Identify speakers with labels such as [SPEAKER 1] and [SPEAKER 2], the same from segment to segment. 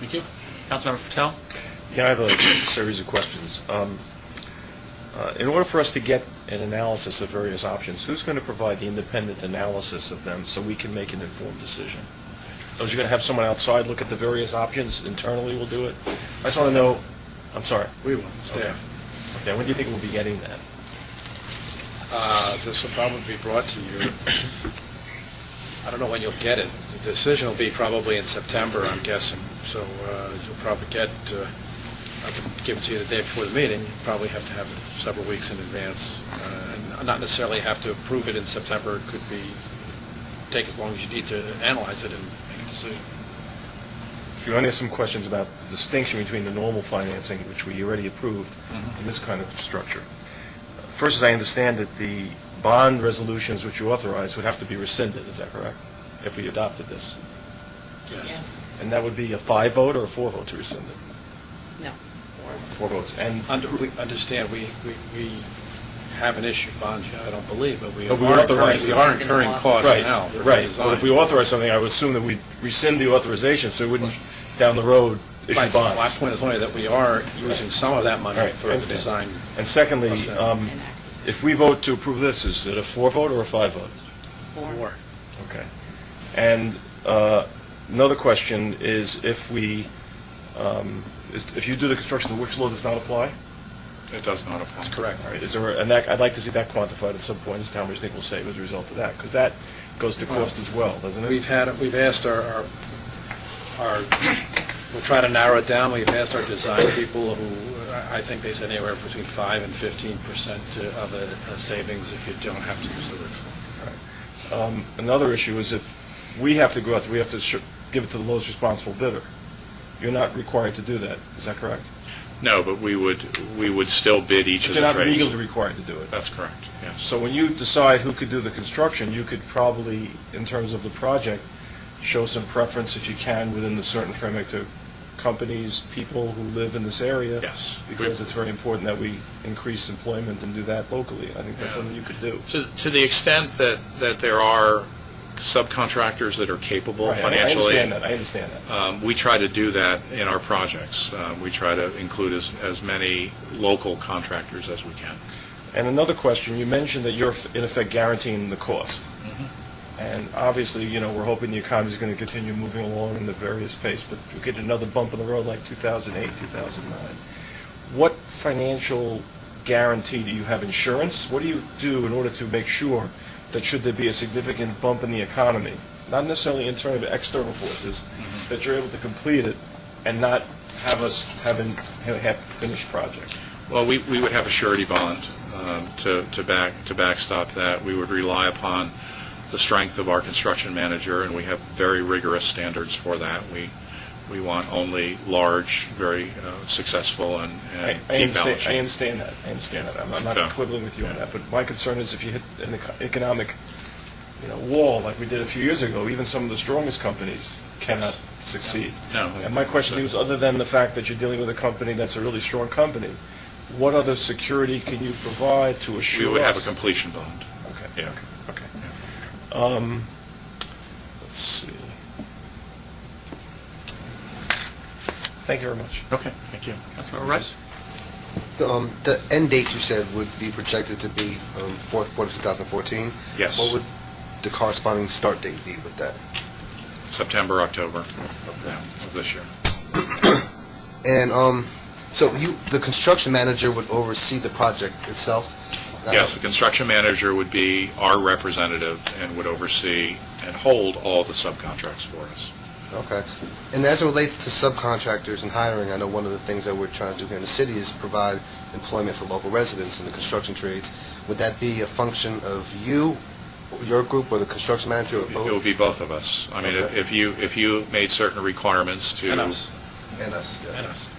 [SPEAKER 1] Thank you. Councilmember Patel?
[SPEAKER 2] Yeah, I have a series of questions. Um, uh, In order for us to get an analysis of various options, who's going to provide the independent analysis of them so we can make an informed decision? So you're going to have someone outside look at the various options, internally we'll do it? I just want to know, I'm sorry,
[SPEAKER 3] We will,
[SPEAKER 2] Okay, when do you think we'll be getting that?
[SPEAKER 3] Uh, This will probably be brought to you, I don't know when you'll get it. The decision will be probably in September, I'm guessing. So uh, you'll probably get, uh, I can give it to you the day before the meeting. You probably have to have it several weeks in advance. Uh, and Not necessarily have to approve it in September. It could be, take as long as you need to analyze it and make a decision.
[SPEAKER 2] You only have some questions about the distinction between the normal financing, which we already approved, and this kind of structure. First, as I understand it, the bond resolutions which you authorized would have to be rescinded, is that correct? If we adopted this? And that would be a five vote or a four vote to rescind it?
[SPEAKER 4] No.
[SPEAKER 2] Four votes. And
[SPEAKER 3] Under- we Understand, we, we- we haven't issued bonds yet, I don't believe, but we
[SPEAKER 2] But we
[SPEAKER 3] are incurring,
[SPEAKER 2] authorized
[SPEAKER 3] we
[SPEAKER 2] it.
[SPEAKER 3] are incurring
[SPEAKER 2] Right,
[SPEAKER 3] costs now for the
[SPEAKER 2] right. Well,
[SPEAKER 3] design.
[SPEAKER 2] if we authorize something, I would assume that we'd rescind the authorization, so we wouldn't, down the road, issue
[SPEAKER 3] My-
[SPEAKER 2] bonds.
[SPEAKER 3] My point is only that we are using some of that money
[SPEAKER 2] All right,
[SPEAKER 3] for the
[SPEAKER 2] understand.
[SPEAKER 3] design.
[SPEAKER 2] And secondly,
[SPEAKER 3] What's that?
[SPEAKER 2] um, if we vote to approve this, is it a four vote or a five vote?
[SPEAKER 3] Four.
[SPEAKER 2] Okay. And uh, another question is if we, um, is- if you do the construction, the Wick's law does not apply?
[SPEAKER 5] It does not apply.
[SPEAKER 3] That's correct.
[SPEAKER 2] All right, is there, and that, I'd like to see that quantified at some point, as to how much they will save as a result of that, because that goes to cost as well, doesn't it?
[SPEAKER 3] We've had, we've asked our, our- our, we'll try to narrow it down, we've asked our design people who, I I think they said anywhere between 5 and 15 percent of a a savings if you don't have to use the Wix.
[SPEAKER 2] Um, Another issue is if we have to go out, we have to sh- give it to the lowest responsible bidder. You're not required to do that, is that correct?
[SPEAKER 5] No, but we would, we would still bid each of
[SPEAKER 2] You're
[SPEAKER 5] the
[SPEAKER 2] not
[SPEAKER 5] trades.
[SPEAKER 2] legally required to do it.
[SPEAKER 5] That's correct, yes.
[SPEAKER 2] So when you decide who could do the construction, you could probably, in terms of the project, show some preference if you can within the certain framework to companies, people who live in this area.
[SPEAKER 5] Yes.
[SPEAKER 2] Because it's very important that we increase employment and do that locally. I think that's
[SPEAKER 5] Yeah.
[SPEAKER 2] something you could do.
[SPEAKER 5] To, to the extent that, that there are subcontractors that are capable
[SPEAKER 2] Right, I-
[SPEAKER 5] financially.
[SPEAKER 2] I understand that, I understand that.
[SPEAKER 5] Um, We try to do that in our projects. Uh, We try to include as, as many local contractors as we can.
[SPEAKER 2] And another question, you mentioned that you're in effect guaranteeing the cost. And obviously, you know, we're hoping the economy's going to continue moving along in the various pace, but you get another bump in the road like 2008, 2009. What financial guarantee, do you have insurance? What do you do in order to make sure that should there be a significant bump in the economy, not necessarily internal, but external forces, that you're able to complete it and not have us have an have finished project?
[SPEAKER 5] Well, we, we would have a surety bond um, to, to back, to backstop that. We would rely upon the strength of our construction manager, and we have very rigorous standards for that. We, we want only large, very uh, successful and
[SPEAKER 2] I
[SPEAKER 5] and
[SPEAKER 2] I
[SPEAKER 5] deep balance
[SPEAKER 2] understand, I
[SPEAKER 5] sheet.
[SPEAKER 2] understand that, I understand that, I'm I'm not
[SPEAKER 5] So-
[SPEAKER 2] quibbling with you on that, but my concern is if you hit an eco- economic, you know, wall like we did a few years ago, even some of the strongest companies cannot
[SPEAKER 5] Yes.
[SPEAKER 2] succeed.
[SPEAKER 5] No.
[SPEAKER 2] And my question is, other than the fact that you're dealing with a company that's a really strong company, what other security can you provide to assure
[SPEAKER 5] We would have a
[SPEAKER 2] us-
[SPEAKER 5] completion bond.
[SPEAKER 2] Okay,
[SPEAKER 5] Yeah.
[SPEAKER 2] okay. Um, let's see. Thank you very much.
[SPEAKER 5] Okay, thank you.
[SPEAKER 1] Councilmember Rice?
[SPEAKER 6] Um, The end date you said would be projected to be um, fourth quarter 2014.
[SPEAKER 5] Yes,
[SPEAKER 6] What would the corresponding start date be with that?
[SPEAKER 5] September, October yeah, of this year.
[SPEAKER 6] And um, so you, the construction manager would oversee the project itself? Uh,
[SPEAKER 5] Yes, the construction manager would be our representative and would oversee and hold all the subcontracts for us.
[SPEAKER 6] Okay. And as it relates to subcontractors and hiring, I know one of the things that we're trying to do here in the city is provide employment for local residents in the construction trades. Would that be a function of you, your group, or the construction manager, or
[SPEAKER 5] It would
[SPEAKER 6] both?
[SPEAKER 5] be both of us. I mean, if
[SPEAKER 6] Okay.
[SPEAKER 5] if you, if you made certain requirements to...
[SPEAKER 3] And us,
[SPEAKER 6] And us.
[SPEAKER 3] and us.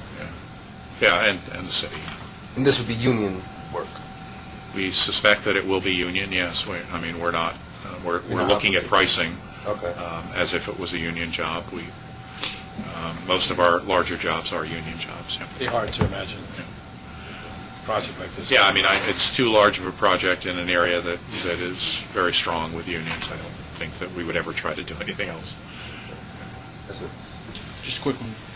[SPEAKER 5] Yeah, and, and the city.
[SPEAKER 6] And this would be union work?
[SPEAKER 5] We suspect that it will be union, yes. We, I mean, we're not, uh, we're,
[SPEAKER 6] You're
[SPEAKER 5] we're
[SPEAKER 6] not
[SPEAKER 5] looking at pricing
[SPEAKER 6] obligated. Okay.
[SPEAKER 5] um, as if it was a union job. We, um, most of our larger jobs are union jobs, yeah.
[SPEAKER 3] Be hard to imagine a project like this.
[SPEAKER 5] Yeah, I mean, I, it's too large of a project in an area that, that is very strong with unions. I don't think that we would ever try to do anything else.
[SPEAKER 6] That's it.
[SPEAKER 1] Just a quick one.